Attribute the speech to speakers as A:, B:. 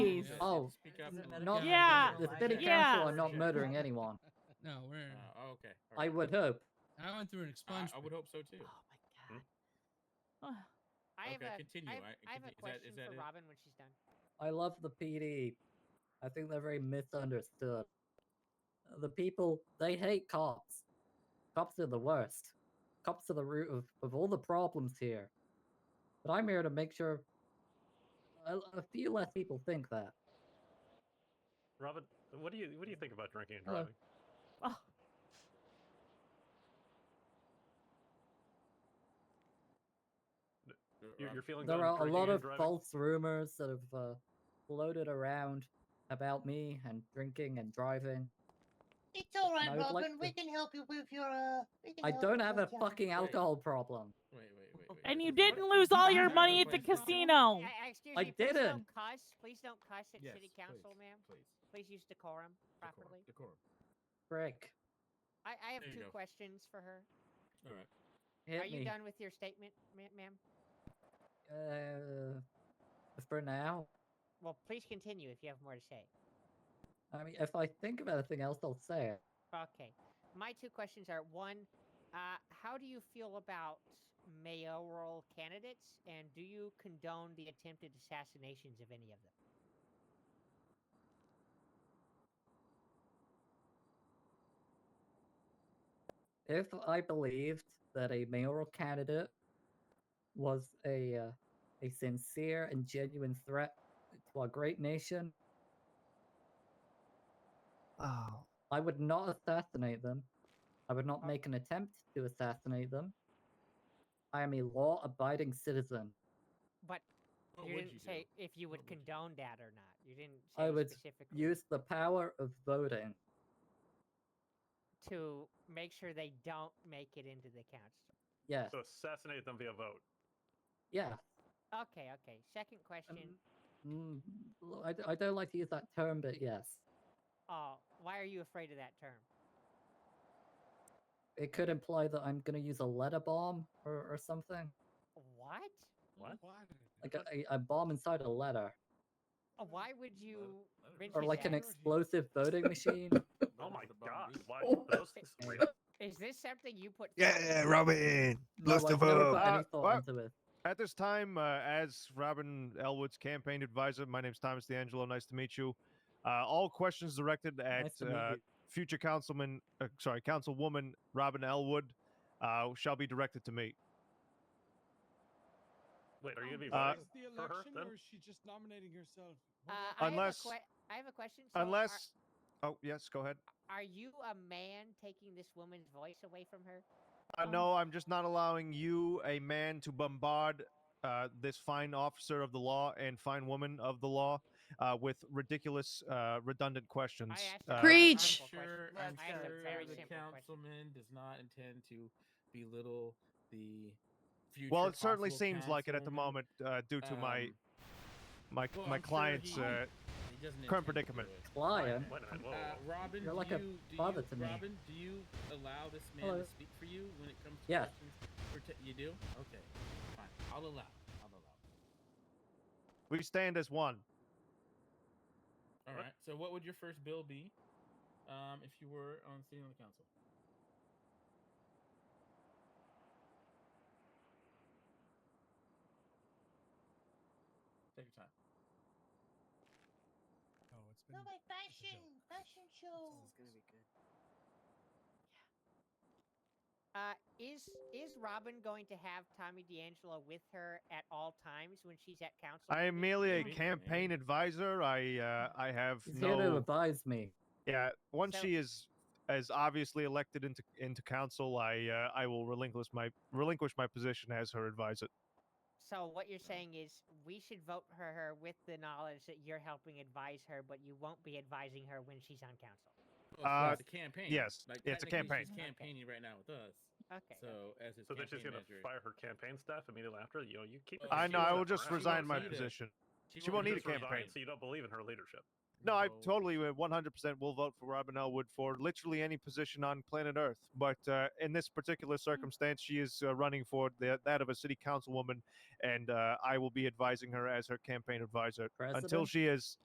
A: Please,
B: Yeah,
A: oh,
B: Speak up.
C: Doesn't
B: a
C: matter
B: little
C: if
A: not
B: bit.
C: you
D: Yeah.
C: have
A: the
C: a
A: city
C: license.
D: Yeah.
A: council are not murdering anyone.
B: No, we're.
E: Uh, okay.
A: I
E: alright.
A: would hope.
B: I went through an
E: I,
B: expungement.
E: I would hope so too.
C: Oh my god.
D: Ugh.
F: I have
E: okay,
F: a,
E: continue.
F: I have,
E: I-
F: I have a
E: conti- is that-
F: question
E: is that
F: for
E: it?
F: Robin when she's done.
A: I love the PD. I think they're very misunderstood. The people, they hate cops. Cops are the worst. Cops are the root of, of all the problems here. But I'm here to make sure a, a few less people think that.
G: Robin, what do you what do you think about drinking and
A: Hello.
G: driving?
D: Oh.
E: Uh,
G: You're,
E: Rob,
G: you're feeling
A: There
G: good
A: are a
G: drinking
A: lot
G: and
A: of
G: driving?
A: false rumors that have uh, floated around about me and drinking and driving.
H: It's all right,
A: I would like
H: Robin. We
A: to-
H: can help you with your. Uh, we can
A: I
H: help
A: don't
H: you
A: have a
H: with your-
A: fucking alcohol problem.
E: Wait, wait, wait, wait.
D: And you
E: what-
D: didn't
E: what-
D: lose all your
E: what-
D: money at the
E: what- what-
D: casino.
F: I, I, excuse
A: Oh, I
F: me, please
A: didn't.
F: don't cuss. Please don't cuss at
E: Yes,
F: city council,
E: please,
F: ma'am.
E: Please.
F: Please use decorum
E: Decorum,
F: properly.
E: Decorum.
A: Frick.
F: I, I have
E: There you
F: two
E: go.
F: questions for her.
E: All right.
A: Hit
F: Are you
A: me.
F: done with your statement, ma- ma'am?
A: Uh, for now.
F: Well, please continue if you have more to say.
A: I mean, if I think of anything else, I'll say it.
F: Okay. My two questions are one, uh, how do you feel about mayoral candidates, and do you condone the attempted assassinations of any of them?
A: If I believed that a mayoral candidate was a uh, a sincere and genuine threat to our great nation,
C: Oh.
A: I would not assassinate them. I would not
F: Oh.
A: make an attempt to assassinate them. I am a law-abiding citizen.
F: But
E: What
F: you
E: would
F: didn't
E: you do?
F: say if you would
E: What would you do?
F: condone that or not. You didn't say
A: I would
F: specifically
A: Use the power of voting.
F: to make sure they don't make it into the council.
A: Yes.
G: So assassinate them via vote.
A: Yeah.
F: Okay, okay. Second question.
A: Mm, l- I, d- I don't like to use that term, but yes.
E: Um,
F: Oh, why are you afraid of that term?
A: It could imply that I'm going to use a letter bomb or, or something.
F: What?
G: What?
A: Like a, a bomb inside a letter.
F: Uh, Why would you?
E: Hmm, let it
F: rinse
A: Or
F: your
A: like an
F: hands?
A: explosive voting machine.
G: Oh my god! Why
C: Oh.
G: those things are weird.
F: Is this something you put? forward?
I: Yeah, Robin.
A: No,
I: Lost
A: I've
I: the
A: never
I: vote.
A: put any
J: Uh,
A: thought
J: what?
A: into it.
J: At this time, uh, as Robin Elwood's campaign advisor, my name's Thomas D'Angelo. Nice to meet you. Uh, all questions directed at
A: Nice to meet
J: uh,
A: you.
J: future councilman, uh, sorry, councilwoman Robin Elwood, uh, shall be directed to me.
G: Wait, are you gonna be
J: Uh,
G: voting for her then?
B: is she just nominating herself?
F: Uh,
J: Unless-
F: I have a, que- I have a question. so are-
J: Unless, oh yes, go ahead.
F: are, you a man taking this woman's voice away from her?
J: Uh,
D: Um,
J: no, I'm just not allowing you, a man, to bombard uh, this fine officer of the law and fine woman of the law uh, with ridiculous, uh, redundant questions.
F: I asked.
J: Uh,
F: a very
D: Preach!
F: simple question.
E: Sure,
C: Let's
E: I'm
C: go. That's a
E: sure
C: very
E: the
F: simple question.
E: councilman does not intend to belittle the future.
J: well, it certainly
E: possible
J: seems like it at the
E: councilwoman.
J: moment, uh, due to my
E: Um,
J: my
E: well,
J: my
E: I'm sure
J: clients.
E: he-
J: uh,
E: He doesn't
J: current
E: intend to do
J: predicament.
E: it.
A: Client.
G: Wait a minute. Whoa,
E: Uh,
G: whoa, whoa.
E: Robin,
A: You're like
E: do
A: a
E: you, do
A: father
E: you,
A: to me.
E: Robin, do you allow this man
A: Hello.
E: to speak for you when it comes to
A: Yes.
E: questions? Or t- you do? Okay, fine. I'll allow. I'll allow.
J: we stand as one.
E: All right. So, what would your first bill be, um, if you were on sitting on the council? Take your time.
B: Oh,
H: No, my fashion, fashion show.
F: Uh, is is Robin going to have Tommy D'Angelo with her at all times when she's at council?
J: I am
F: meetings?
J: merely a
E: Maybe,
J: campaign
E: maybe.
J: advisor. I uh, I have
A: He's
J: no.
A: here to advise me.
J: Yeah, once
F: So-
J: she is as obviously elected into into council, I uh, I will relinquish my relinquish my position as her advisor.
F: So what you're saying is we should vote for her with the knowledge that you're helping advise her, but you won't be advising her when she's on council.
E: Well, so
J: Uh,
E: it's a campaign.
J: yes,
E: Like,
J: it's
E: technically
J: a
E: She's
F: campaign.
E: campaigning right now with us.
F: Okay.
E: So, as his
G: So then
E: campaign
G: she's gonna
E: manager,
G: fire her campaign staff immediately after. You know, you keep.
E: Well,
J: I
E: Oh, she
J: know. I
E: won't-
J: will just
E: she won't
J: resign my
E: need it.
J: position.
E: She,
J: won't need
G: You
J: a
G: just resign,
J: campaign.
G: So you don't believe in her leadership.
J: No, I
E: No.
J: totally, uh, 100% will vote for Robin Elwood for literally any position on planet Earth. But uh, in this particular
E: Hmm.
J: circumstance, she is uh, running for the, that of a city councilwoman, and uh, I will be advising her as her campaign advisor until
A: President?
J: she is